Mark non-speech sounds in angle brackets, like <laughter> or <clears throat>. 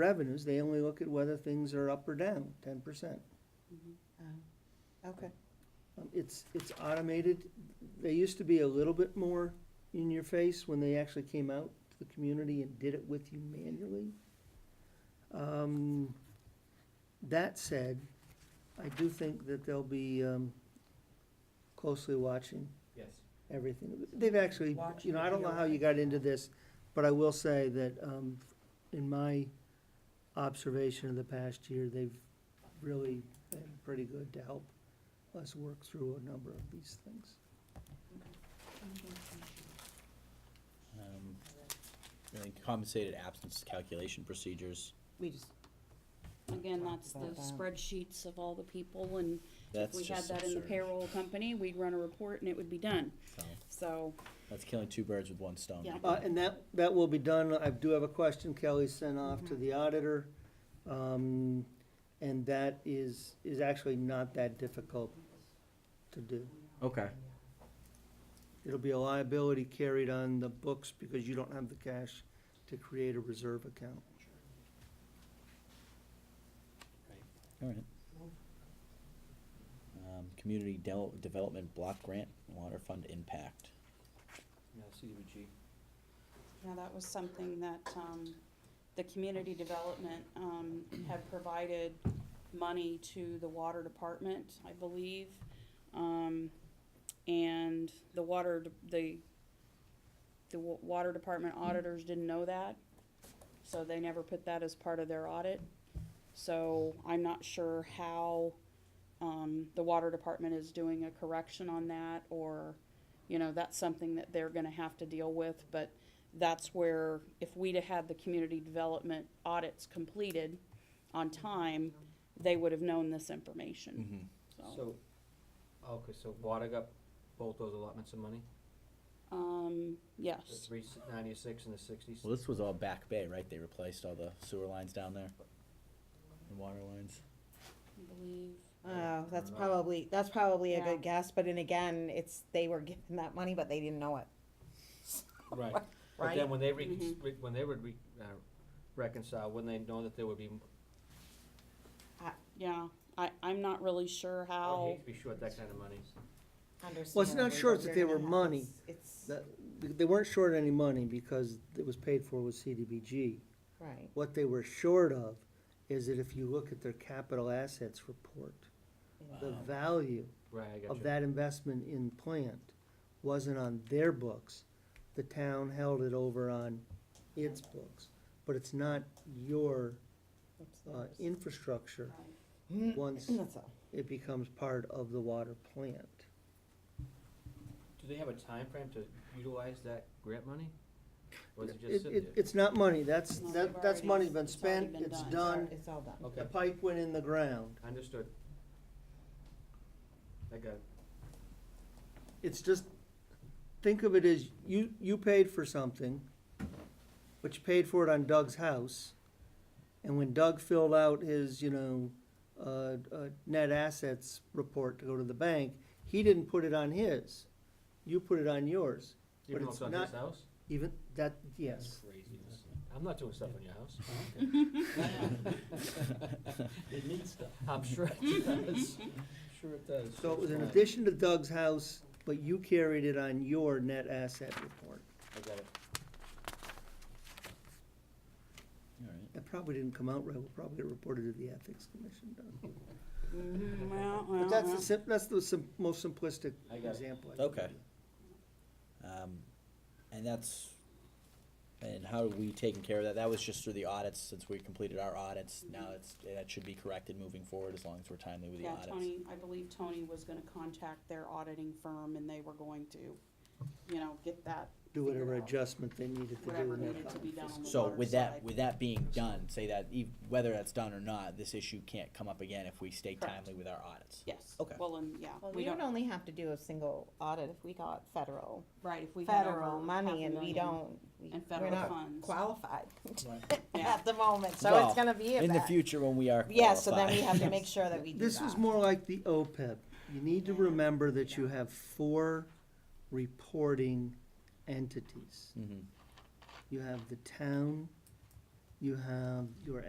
revenues, they only look at whether things are up or down, ten percent. Mm-hmm. Oh. Okay, Um, It's, it's automated. They used to be a little bit more in your face when they actually came out to the community and did it with you manually. Um, That said, I do think that they'll be um, closely watching Yes. everything. They've actually, you Watching know, I don't know how you got into this, but I will say that um, in my observation of the past year, they've really been pretty good to help us work through a number of these things. Um, And then compensated absence calculation procedures, we just, Again, that's the About that. spreadsheets of all the people, and if that's we had just that in the absurd. payroll company, we'd run a report and it would be done. So, So, That's killing two birds with one stone. Yeah. Uh, and that, that will be done. I do have a question Kelly sent off to Mhm. the auditor. Um, and that is, is actually not that difficult to do. Okay. It'll be a liability carried on the books because you don't have the cash to create a reserve account. All right. Um, Community Del- Development Block Grant, Water Fund Impact. Yeah, CDBG. now that was something that, um, the community development, um, had provided money to the water department, I believe. Um, and the water, de- the, the wa- water department auditors didn't know that, so they never put that as part of their audit. So I'm not sure how, um, the water department is doing a correction on that, or, you know, that's something that they're gonna have to deal with, but that's where, if we'd have had the community development audits completed on time, they would have known this Mm. information, so. So, okay, so water got both those allotments of money, Um, the yes, three ninety-six and the sixties? <laughs> Well, this was all Back Bay, right? They replaced all the sewer lines down there? And water lines? I believe, oh, that's Right. probably, that's probably a Yeah. good guess, but then again, it's, they were given that money, but they didn't know it. Right. But Right? then when they re, re- when they would re, uh, reconcile, wouldn't they know that there would be, yeah, I, I'm not really sure I would how, hate to oh, be short that kind of money. not sure Understandably, that but they you're were gonna have money. this- It's, That, they weren't short any money because it was paid for with CDBG. right, What they were short of is that if you look at their capital assets report, the Wow. value Right, I got of you. that investment in plant wasn't on their books. The town held it over on its books, but it's not your, uh, upstairs. infrastructure Mm, once <clears throat> That's all. it becomes part of the water plant. Do they have a time frame to utilize that grant money? Or is it just It, sit it, there? it's not money, that's, that, No, they've that's already- money's been it's already spent, been it's done. done, It's all done. the Okay, pipe went in the ground. understood. I got it. It's just, think of it as, you, you paid for something, but you paid for it on Doug's house. And when Doug filled out his, you know, uh, uh, net assets report to go to the bank, he didn't put it on his. You put it on yours, Even though it's it's not not- his house? even, that, yes. Craziness. I'm not doing stuff on your house. Oh, It needs stuff. I'm sure it does. I'm <laughs> Sure it does. So it was in Fine. addition to Doug's house, but you carried it on your net asset report. I got it. All right. That probably didn't come out right, we'll probably get reported to the ethics commission, Doug. <laughs> Mhm, well, But well, that's well. the sim, that's the sim, most simplistic I got it. example. I can Okay. give you. Um, and that's, and how are we taking care of that? That was just through the audits, since we completed our audits. Now it's, that should be corrected moving forward as long as we're timely with the Yeah, audits. Tony, I believe Tony was gonna contact their auditing firm and they were going to, you know, get that, do whatever figure out adjustment they needed to do. whatever in their needed to be done on the water side. So with that, with that being done, say that ev- whether that's done or not, this issue can't come up again if we stay Correct. timely with our audits. Yes. Okay. Well, and, yeah, Well, we we would don't, only have to do a single audit if we got federal, right, if we had over federal half a money and we million don't, we- And we're federal not funds. qualified Yeah. <laughs> at the moment, so it's Well, gonna be In the about. future, when we are Yeah, so then we have qualified. <laughs> to make sure <laughs> that we do This is that. more like the OPEB. You need to remember that you have four reporting entities. Mhm. You have the town, you have your